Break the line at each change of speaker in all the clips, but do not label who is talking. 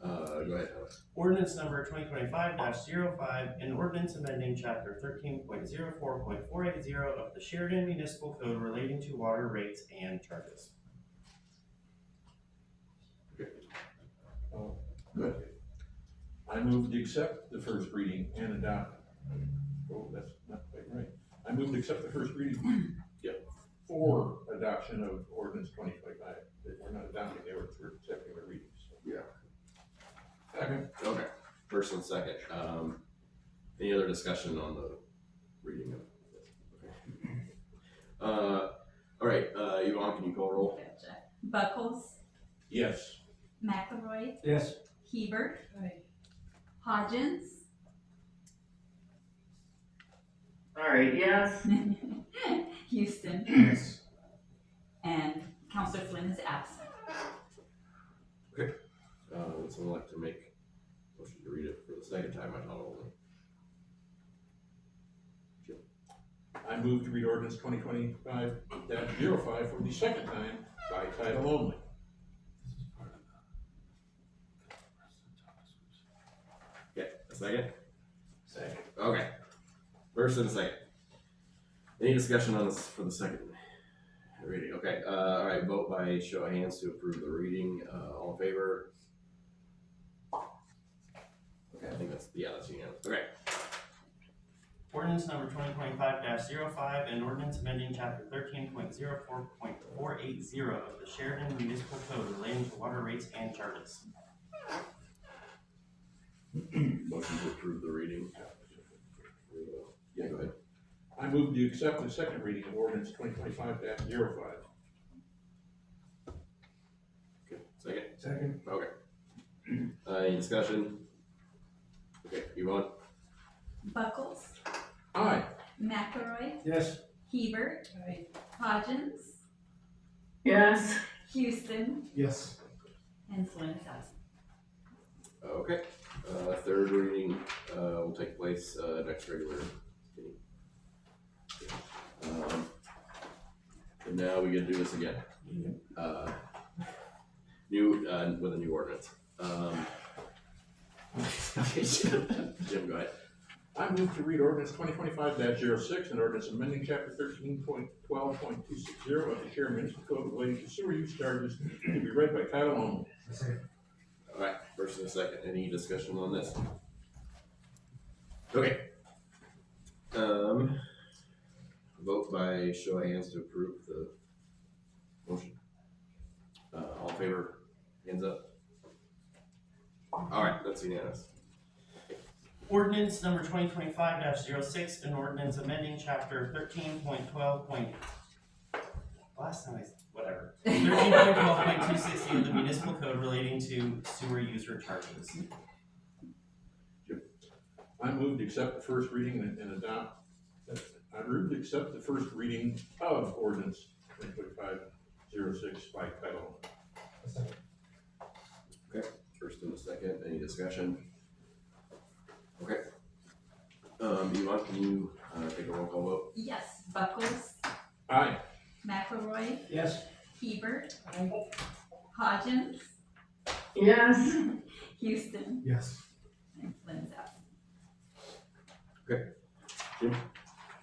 sorry, Uh, go ahead, Alex.
Ordinance number twenty twenty-five 5 an ordinance amending chapter thirteen point zero four point four eight zero of the Sheridan Municipal Code relating to water rates and charges.
Good.
Oh, I move to accept the first reading and adopt. Oh, that's not quite right. I move to accept the first reading. Yeah. For adoption of ordinance twenty twenty-five, that we're not adopting the ordinance, we're accepting the readings.
Yeah.
Second.
Okay, first and second, um, any other discussion on the reading of this? Okay. Uh, all right, uh, Yvonne, can you call roll?
Gotcha. Buckles,
Yes.
McElroy,
Yes.
Hebert,
Aye.
Hodgins,
Sorry, yes.
Houston. And Counselor Flynn is absent.
Uh, would someone like to make a motion to read it for the second time by title only?
I move to read ordinance twenty twenty-five 5 for the second time by title only.
Yeah, a second?
Second.
Okay. First and second. Any discussion on this for the second reading? Okay, uh, all right, vote by show of hands to approve the reading, uh, all in favor? Okay, I think that's, yeah, that's unanimous, okay.
Ordinance number twenty twenty-five 5 an ordinance amending chapter thirteen point zero four point four eight zero of the Sheridan Municipal Code relating to water rates and charges.
Motion to approve the reading. Yeah, go ahead.
I move to accept the second reading of ordinance twenty twenty-five 5
Okay, Second,
Second.
okay. Uh, any discussion? Okay, Yvonne?
Buckles,
Aye.
McElroy,
Yes.
Hebert,
Aye.
Hodgins,
Yes.
Houston,
Yes.
and Flynn is absent.
Okay, uh, third reading, uh, will take place, uh, next regular meeting. Um, And now we get to do this again. Uh, New, uh, with a new ordinance, um. okay, Jim, Jim, go ahead.
I move to read ordinance twenty twenty-five 6 and ordinance amending chapter thirteen point twelve point two six zero of the Sharon Municipal Code relating to sewer use charges to be read by title only.
Second.
Alright, first and second, any discussion on this? Okay. Um, vote by show of hands to approve the motion. Uh, all in favor, hands up. Alright, that's unanimous.
Ordinance number twenty twenty-five 6 an ordinance amending chapter thirteen point twelve point. Last time I, s- whatever. Thirteen point twelve point two sixty of the municipal code relating to sewer user charges.
I move to accept the first reading and, and adopt, I move to accept the first reading of ordinance twenty twenty-five 6 by title only.
Second.
First and a second, any discussion? Okay. Um, Yvonne, can you, uh, take a roll call vote?
Yes, Buckles,
Aye.
McElroy,
Yes.
Hebert, Hodgins,
Yes.
Houston,
Yes.
and Flynn is absent.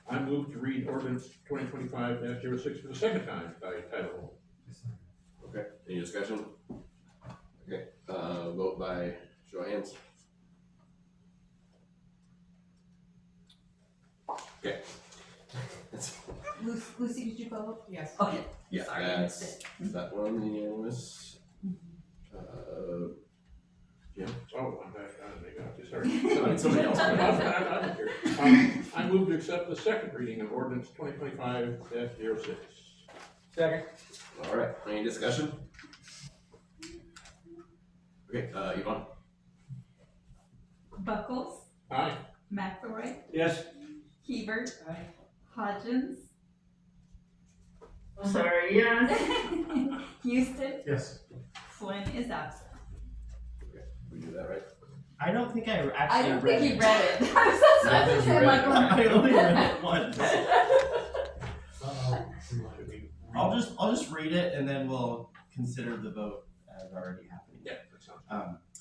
I move to read ordinance twenty twenty-five 6 for the second time by title only.
Okay, any discussion? Okay, uh, vote by show of hands. Okay. That's-
Lu- Lucy, did you vote?
Yes.
Okay,
Yeah,
sorry, I missed
that's-
it.
That one unanimous. Uh,
Oh, I'm back, I think,
Somebody-
I'm sorry.
somebody else.
I'm- I'm- I'm here. Um, I move to accept the second reading of ordinance twenty twenty-five 6
Second.
all right, any discussion? Okay, uh, Yvonne?
Buckles,
Aye.
McElroy,
Yes.
Hebert,
Aye.
Hodgins,
Sorry, yes.
Houston,
Yes.
Flynn is absent.
We do that, right?
I don't think I
I
actually
don't think
read
he
it.
read it. I was just
I don't
about to
think he
say,
read it.
like,
I only read it once.
Uh-oh.
I'll just, I'll just read it and then we'll consider the vote as already happening.
Yeah, that sounds.
Um,